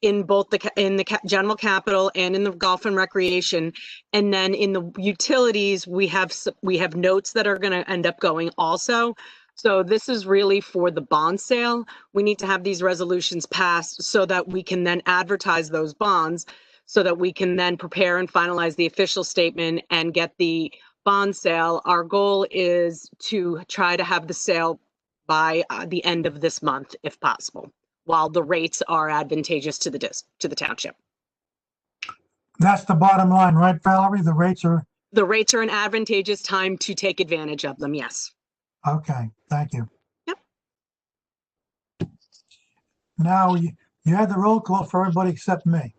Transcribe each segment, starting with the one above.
in both the, ca- in the ca- general capital and in the golf and recreation. And then in the utilities, we have, s- we have notes that are gonna end up going also. So this is really for the bond sale. We need to have these resolutions passed so that we can then advertise those bonds so that we can then prepare and finalize the official statement and get the bond sale. Our goal is to try to have the sale by uh, the end of this month, if possible, while the rates are advantageous to the dis, to the township. That's the bottom line, right, Valerie? The rates are, The rates are an advantageous time to take advantage of them, yes. okay, thank you. Yep. Now, you you had the roll call for everybody except me.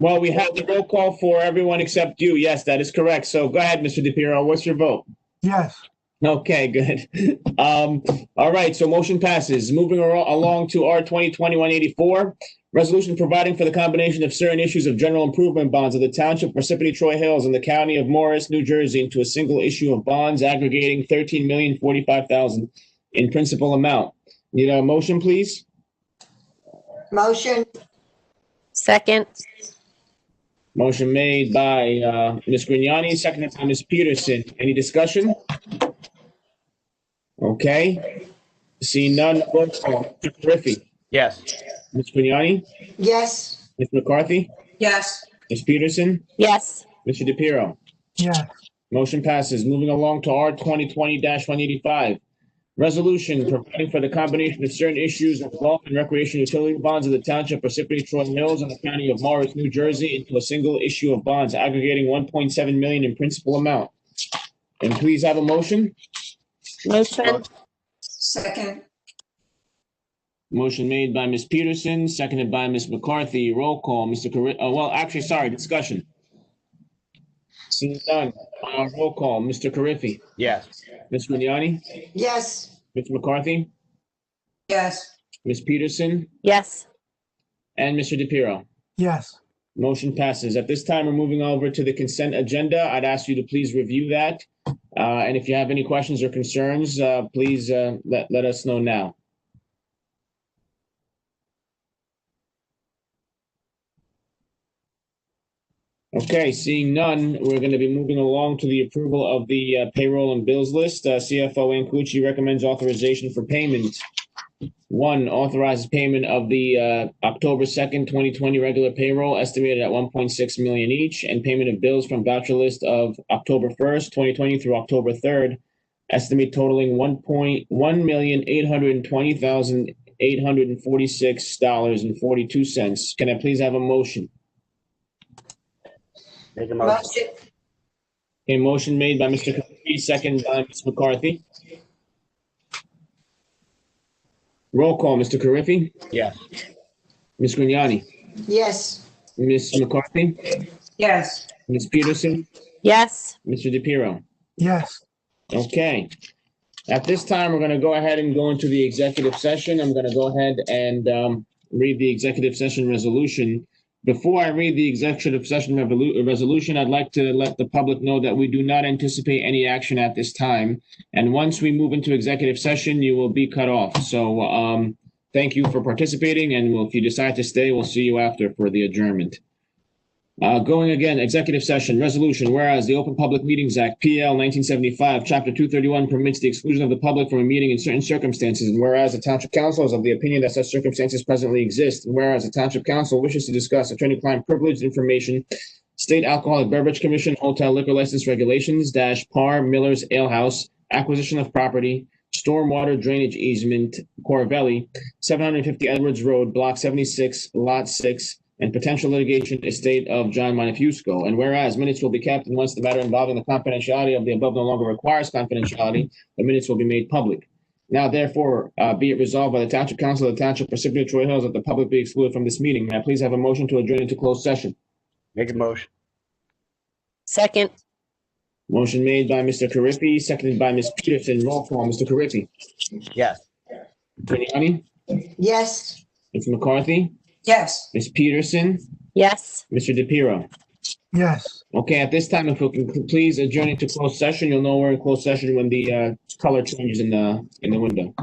Well, we had the roll call for everyone except you. Yes, that is correct. So go ahead, Mr. DePiero. What's your vote? Yes, Okay, good. Um, all right, so motion passes. Moving aro- along to R twenty twenty one eighty four. Resolution providing for the combination of certain issues of general improvement bonds of the township Parsippany Troy Hills and the county of Morris, New Jersey into a single issue of bonds aggregating thirteen million forty five thousand in principal amount. Need a motion, please? Motion, Second, Motion made by, uh, Ms. Grignani, seconded by Ms. Peterson. Any discussion? Okay. Seeing none, roll call. Mr. Carriffy? yes, Ms. Grignani? yes. Ms. McCarthy? Yes. Ms. Peterson? yes, Mr. DePiero? yes, Motion passes. Moving along to R twenty twenty one eighty-five. Resolution providing for the combination of certain issues of golf and recreation utility bonds of the township Parsippany Troy Hills and the county of Morris, New Jersey into a single issue of bonds aggregating one point seven million in principal amount. And please have a motion. motion, Second, Motion made by Ms. Peterson, seconded by Ms. McCarthy. Roll call, Mr. Corri, uh, well, actually, sorry, discussion. Seeing none, uh, roll call, Mr. Carriffy. yes, Ms. Grignani? yes. Ms. McCarthy? Yes. Ms. Peterson? yes, And Mr. DePiero? yes. Motion passes. At this time, we're moving over to the consent agenda. I'd ask you to please review that. Uh, And if you have any questions or concerns, uh, please uh, let, let us know now. Okay, seeing none, we're going to be moving along to the approval of the uh, payroll and bills list. Uh, CFO Ancucci recommends authorization for payment. One, authorizes payment of the uh, October 2nd, 2020 regular payroll estimated at 1.6 million each and payment of bills from voucher list of October 1st, 2020 through October 3rd, estimate totaling 1.1820846 dollars and 42 cents. Can I please have a motion? make a motion, Motion, A motion made by Mr. Capri, second by Ms. McCarthy. Roll call, Mr. Carriffy, yes, Ms. Grignani, yes. Ms. McCarthy, Yes. Ms. Peterson, yes, Mr. DePiero. Yes, Okay. At this time, we're going to go ahead and go into the executive session. I'm going to go ahead and um, read the executive session resolution. Before I read the executive session revolu- resolution, I'd like to let the public know that we do not anticipate any action at this time. And once we move into executive session, you will be cut off. So um, thank you for participating, and we'll- if you decide to stay, we'll see you after for the adjournment. Uh, going again, executive session, resolution, whereas the Open Public Meetings Act, PL nineteen seventy-five, chapter two thirty-one permits the exclusion of the public from a meeting in certain circumstances, and whereas the township council is of the opinion that such circumstances presently exist, and whereas the township council wishes to discuss attorney-client privileged information, state alcoholic beverage commission, hotel liquor license regulations, dash par Miller's Ale House, acquisition of property, stormwater drainage easement, Corvelli, seven hundred fifty Edwards Road, block seventy-six, lot six, and potential litigation estate of John Montefusco. And whereas minutes will be kept, and once the matter involving the confidentiality of the above no longer requires confidentiality, the minutes will be made public. Now therefore, uh, be it resolved by the Township Council of the Township Precipity Troy Hills that the public be excluded from this meeting. May I please have a motion to adjourn into closed session? make a motion, second, Motion made by Mr. Carriffy, seconded by Ms. Peterson. Roll call, Mr. Carriffy. yes. Grignani? Yes. Ms. McCarthy? Yes. Ms. Peterson? yes, Mr. DePiero? yes. Okay, at this time, if we can c- please adjourn into closed session, you'll know we're in closed session when the uh, color changes in the, in the window.